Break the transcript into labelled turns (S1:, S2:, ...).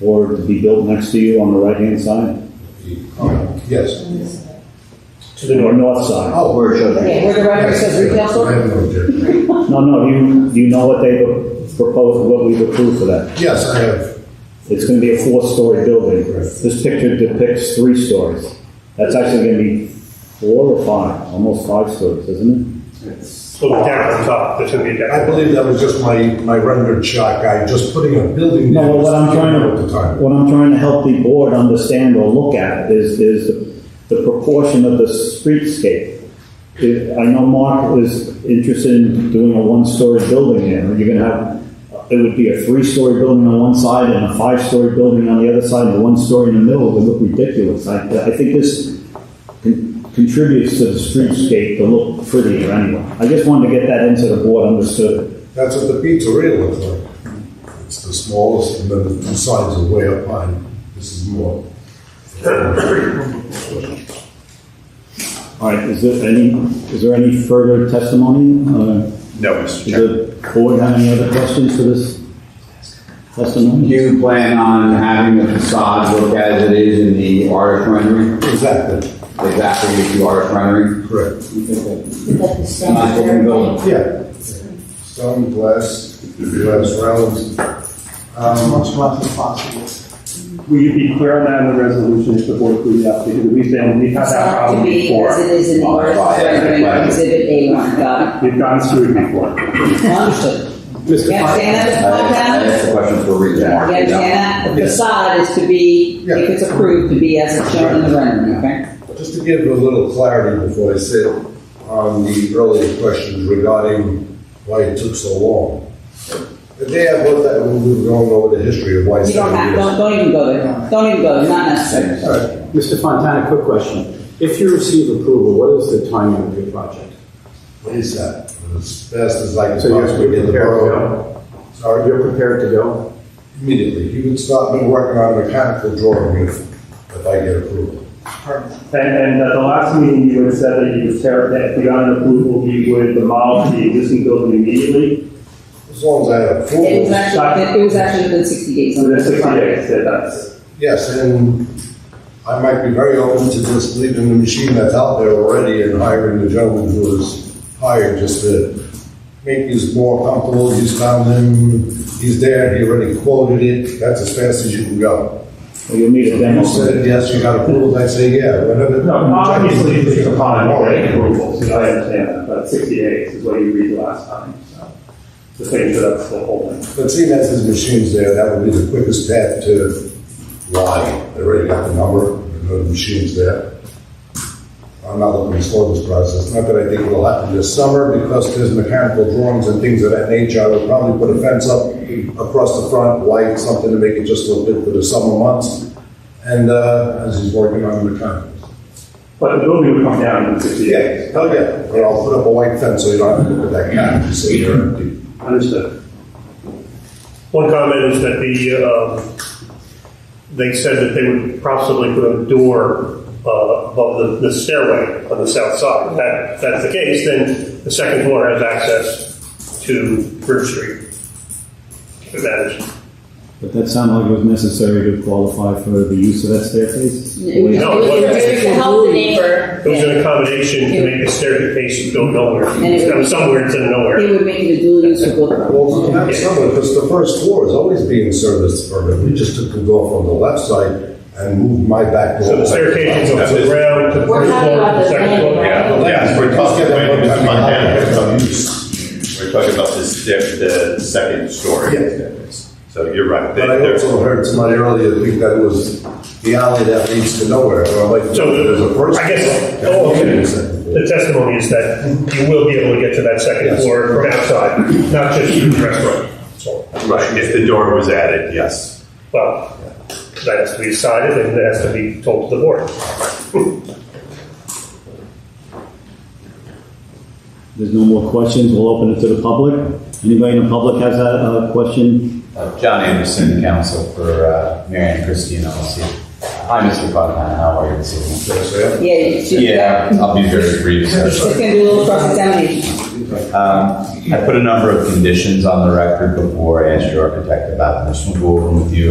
S1: or to be built next to you on the right-hand side,
S2: Oh, Yes.
S1: to the nor- north side.
S2: Oh,
S3: Where it shows
S4: Okay,
S3: retail.
S4: where the record says retail
S2: I
S4: store?
S2: have no objection.
S1: No, no, you, you know what they proposed, what we approved for that.
S2: Yes, I have.
S1: It's gonna be a four-story building.
S2: Right.
S1: This picture depicts three stories. That's actually gonna be four or five, almost five stories, isn't
S5: So the deck on top, there's gonna be a deck.
S2: I believe that was just my, my rendered shot guy, just putting a building.
S1: it?
S2: there
S1: No,
S2: was
S1: what I'm trying
S2: At the
S1: to,
S2: time.
S1: what I'm trying to help the board understand or look at is, is the- the proportion of the streetscape. If- I know Mark is interested in doing a one-story building there. You're gonna have, it would be a three-story building on one side and a five-story building on the other side, and one story in the middle would look ridiculous. I, I think this con- contributes to the streetscape to look prettier anyway. I just wanted to get that into the board understood.
S2: That's what the pizzeria looks like. It's the smallest, and then the two sides are way up high. This is more.
S1: All right, is there any, is there any further testimony? Uh,
S6: No, Mr. Chairman.
S1: Does the board have any other questions for this
S3: Do
S1: testimony?
S3: you plan on having the facade look as it is in the artist rendering?
S2: Exactly,
S3: Exactly as the artist rendering?
S2: correct.
S3: Not looking building.
S2: Yeah. Stone, glass, glass rounds.
S7: as
S2: Um,
S7: much less as possible.
S5: Will you be clear on that in the resolution if the board agrees that? Because we found, we've had
S4: It's
S5: that
S4: not to
S5: problem
S4: be
S5: before.
S4: as it is in the
S3: Well,
S4: artist's
S3: that's right,
S4: rendering
S3: right.
S4: exhibit A one, got
S5: We've gotten screwed before.
S4: it? Understood. You understand that, Mr.
S3: Uh, I I
S4: Montano?
S3: asked the question for a
S4: You
S3: reason, Mark.
S4: understand that? The
S2: Yes.
S4: facade is to be,
S2: Yeah.
S4: if it's approved, to be as it's shown in the rendering, okay?
S2: Just to give a little clarity before I sit on the earlier questions regarding why it took so long. The day I bought that, we were going over the history of why
S4: You don't
S2: seven
S4: have,
S2: years.
S4: don't, don't even go there. Don't even go, there. not necessary.
S2: All right.
S8: Mr. Fontana, quick question. If you receive approval, what is the timing of your project?
S2: What is that? As fast as I can
S8: So you're
S2: possibly get the
S8: prepared to
S2: borough.
S8: Are
S2: Sorry,
S8: you prepared to go?
S2: immediately. You would start me working on a mechanical drawing if, if I get approval.
S5: And, and at the last meeting, you had said that you would tear, that if we got an approval, you would demolish the existing building immediately.
S2: As long as I have
S4: It was
S2: approval.
S4: actually, it was actually within sixty days.
S5: So there's sixty days, that that's,
S2: Yes, and I might be very open to just leaving the machine that's out there already and hiring the gentleman who was hired just to make these more comfortable. He's found him, he's there, he already quoted it. That's as fast as you can go.
S1: Or you'll need a demo?
S2: You said, yes, you got approvals. I say, yeah, whatever.
S5: no, obviously, it's upon already approvals, you know, I understand that, but sixty days is what you read the last time, so. The thing that that's the whole thing.
S2: But seeing as his machine's there, that would be the quickest path to why. They already got the number, they know the machine's there. I'm not looking to slow this process, not that I think it'll happen this summer, because there's mechanical drawings and things of that nature. I would probably put a fence up across the front, light, something to make it just a little bit for the summer months. And, uh, as he's working on the mechanicals.
S5: But the building would come down in sixty days.
S2: Yeah, hell yeah, but I'll put up a white fence so you don't have to look at that cat, you see, you're empty.
S5: Understood.
S9: One comment is that the, um, they said that they would possibly put a door uh, above the the stairway on the south side. If that- If that's the case, then the second floor has access to Bridge Street. If that is,
S1: But that sounded like it was necessary to qualify for the use of that staircase?
S4: It was, it
S9: No,
S4: was-
S9: it
S4: it was to help the neighbor.
S9: it was an accommodation to make the staircase go nowhere,
S4: And it would-
S9: from somewhere to nowhere.
S4: It would make it a dual use for both
S2: Well,
S4: properties.
S2: not summer, because the first floor is always being serviced for it. We just took the door from the left side and moved my back door.
S9: So the staircase goes from the ground to the
S4: We're
S9: first
S4: talking
S9: floor,
S4: about
S9: to the
S4: the
S9: second
S4: landing,
S9: floor.
S6: Yeah,
S4: right?
S6: yeah, we're
S2: Let's
S6: talking,
S2: get that
S6: wait,
S2: one
S6: Mr.
S2: time.
S6: Montana, it's on use. We're talking about this, the, the second story. So you're right.
S2: But I also heard somebody earlier think that it was the alley that leads to nowhere. And I'm like,
S9: So
S2: no, there's a first.
S9: I guess,
S2: floor.
S9: oh, okay.
S2: And a second floor.
S9: The testimony is that you will be able to get to that second
S2: Yes.
S9: floor from outside, not just through the restaurant. So,
S6: Right, if the door was added, yes.
S9: Well, that has to be decided and that has to be told to the board.
S1: There's no more questions, we'll open it to the public. Anybody in the public has a, a question?
S3: Uh, John Anderson, counsel for uh, Marion Christie LLC. Hi, Mr. Fontana, how are you this
S2: Yes,
S3: evening?
S2: yeah.
S4: Yeah, you should-
S3: Yeah, I'll be very brief. sir.
S4: It's gonna do a little cross examination.
S3: Um, I put a number of conditions on the record before I asked your architect about this. We'll go over them with you